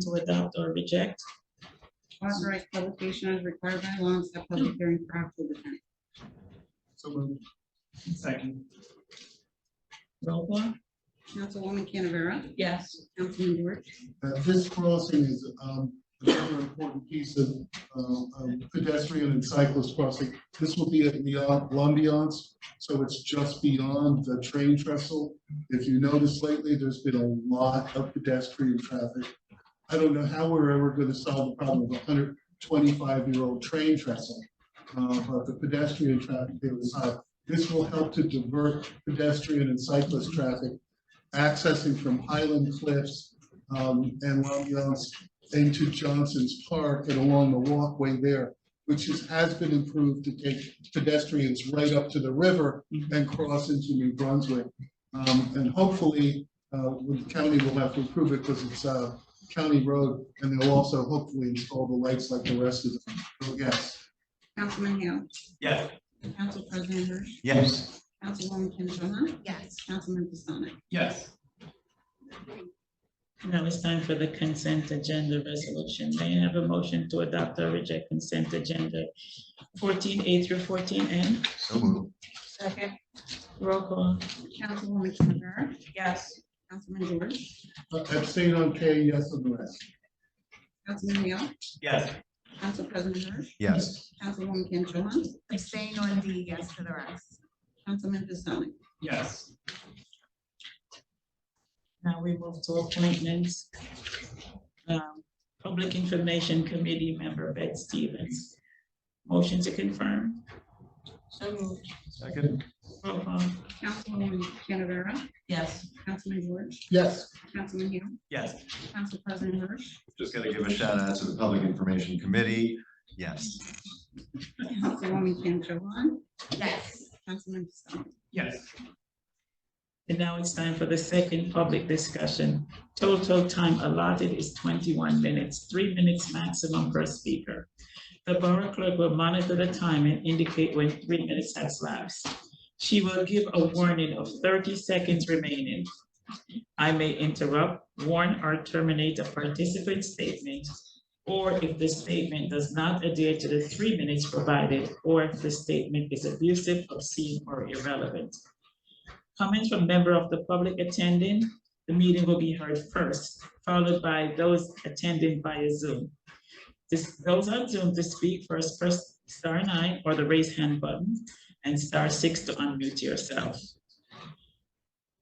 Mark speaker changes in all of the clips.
Speaker 1: to adopt or reject.
Speaker 2: Authorized publication as required by law and set public hearing for October tenth.
Speaker 3: So moved. Second.
Speaker 1: Roll call?
Speaker 2: Councilwoman Canavera?
Speaker 1: Yes.
Speaker 2: Councilman George?
Speaker 4: Uh, This crossing is um, another important piece of uh, of pedestrian and cyclist crossing. This will be at the uh, Lumbions, so it's just beyond the train trestle. If you notice lately, there's been a lot of pedestrian traffic. I don't know how we're ever going to solve the problem of a hundred twenty-five-year-old train trestle, uh, but the pedestrian traffic there is high. This will help to divert pedestrian and cyclist traffic accessing from Highland Cliffs um, and Lumbions into Johnson's Park and along the walkway there, which is, has been improved to take pedestrians right up to the river and cross into New Brunswick. Um, and hopefully, uh, the county will have to improve it because it's a county road and they'll also hopefully install the lights like the rest of them. So yes,
Speaker 2: Councilman Hale?
Speaker 3: Yes.
Speaker 2: Council President Hirsch?
Speaker 3: Yes.
Speaker 2: Councilwoman Kim Cho Han?
Speaker 5: yes,
Speaker 2: Councilman Pistonik?
Speaker 3: Yes.
Speaker 1: Now it's time for the consent agenda resolution. May I have a motion to adopt or reject consent agenda fourteen A through fourteen N?
Speaker 6: So moved.
Speaker 5: second,
Speaker 1: Roll call?
Speaker 2: Councilwoman Canavera?
Speaker 5: yes,
Speaker 2: Councilman George?
Speaker 4: abstain on K, yes on the rest.
Speaker 2: Councilman Hale?
Speaker 3: Yes.
Speaker 2: Council President Hirsch?
Speaker 6: Yes.
Speaker 2: Councilwoman Kim Cho Han?
Speaker 5: abstain on D, yes for the rest.
Speaker 2: Councilman Pistonik?
Speaker 3: Yes.
Speaker 1: Now we move to appointments. Um, Public Information Committee member Beth Stevens. Motion to confirm.
Speaker 5: So moved.
Speaker 3: Second.
Speaker 1: Roll call?
Speaker 2: Councilwoman Canavera?
Speaker 1: Yes.
Speaker 2: Councilman George?
Speaker 4: Yes,
Speaker 2: Councilman Hale?
Speaker 3: Yes.
Speaker 2: Council President Hirsch?
Speaker 6: Just gotta give a shout out to the Public Information Committee. Yes.
Speaker 2: Councilwoman Kim Cho Han?
Speaker 5: Yes,
Speaker 2: Councilman Pistonik?
Speaker 3: Yes.
Speaker 1: And now it's time for the second public discussion. Total time allotted is twenty-one minutes, three minutes maximum per speaker. The borough clerk will monitor the time and indicate when three minutes has lapsed. She will give a warning of thirty seconds remaining. I may interrupt, warn, or terminate a participant's statement, or if the statement does not adhere to the three minutes provided, or if the statement is abusive, obscene, or irrelevant. Comments from member of the public attending, the meeting will be heard first, followed by those attending via Zoom. This, those on Zoom to speak first, press star nine or the raise hand button and star six to unmute yourself.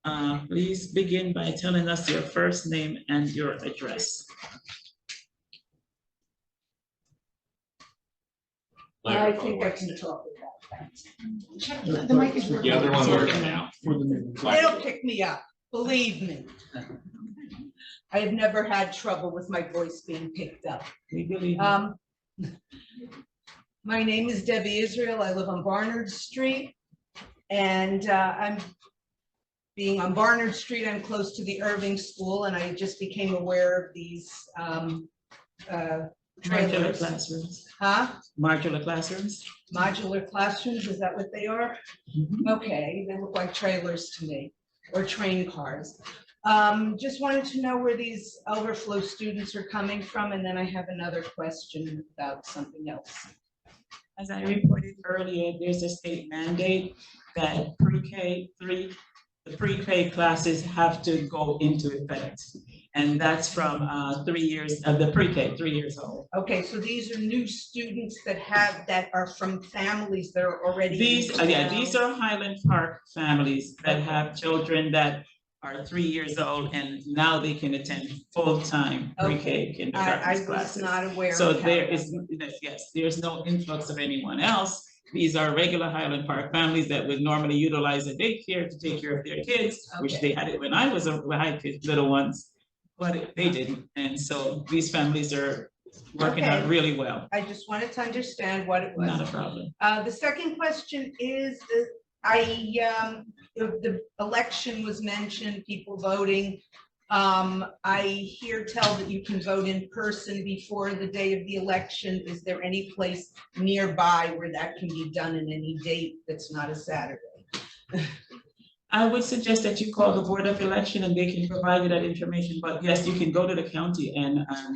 Speaker 1: Uh, please begin by telling us your first name and your address.
Speaker 7: I think I can talk about that. The mic is
Speaker 4: The other
Speaker 7: one
Speaker 1: works
Speaker 7: now.
Speaker 4: for the minute.
Speaker 7: They'll pick me up, believe me. I have never had trouble with my voice being picked up.
Speaker 1: We believe, you.
Speaker 7: Um, My name is Debbie Israel. I live on Barnard Street. And uh, I'm, being on Barnard Street, I'm close to the Irving School and I just became aware of these um, uh,
Speaker 1: modular
Speaker 7: trailers.
Speaker 1: classrooms,
Speaker 7: Huh?
Speaker 1: modular classrooms. Mm-hmm.
Speaker 7: Modular classrooms, is that what they are? Okay, they look like trailers to me, or train cars. Um, just wanted to know where these overflow students are coming from, and then I have another question about something else.
Speaker 1: As I reported earlier, there's a state mandate that pre-K three, the pre-K classes have to go into effect. And that's from uh, three years, of the pre-K, three years old.
Speaker 7: Okay, so these are new students that have, that are from families that are already.
Speaker 1: These,
Speaker 7: in
Speaker 1: yeah,
Speaker 7: town.
Speaker 1: these are Highland Park families that have children that are three years old and now they can attend full-time pre-K
Speaker 7: I,
Speaker 1: kindergarten
Speaker 7: I was
Speaker 1: classes.
Speaker 7: not aware.
Speaker 1: So
Speaker 7: of how
Speaker 1: there
Speaker 7: that-
Speaker 1: is, yes, there's no influx of anyone else. These are regular Highland Park families that would normally utilize a daycare to take care of their kids, which
Speaker 7: Okay.
Speaker 1: they had it when I was, a- when I had kids, little ones. But they didn't, and so these families are working out
Speaker 7: Okay.
Speaker 1: really well,
Speaker 7: I just wanted to understand what it was.
Speaker 1: not a problem.
Speaker 7: Uh, the second question is, that I, um, the, the election was mentioned, people voting. Um, I hear tell that you can vote in person before the day of the election. Is there any place nearby where that can be done in any date that's not a Saturday?
Speaker 1: I would suggest that you call the Board of Election and they can provide you that information, but yes, you can go to the county and, um,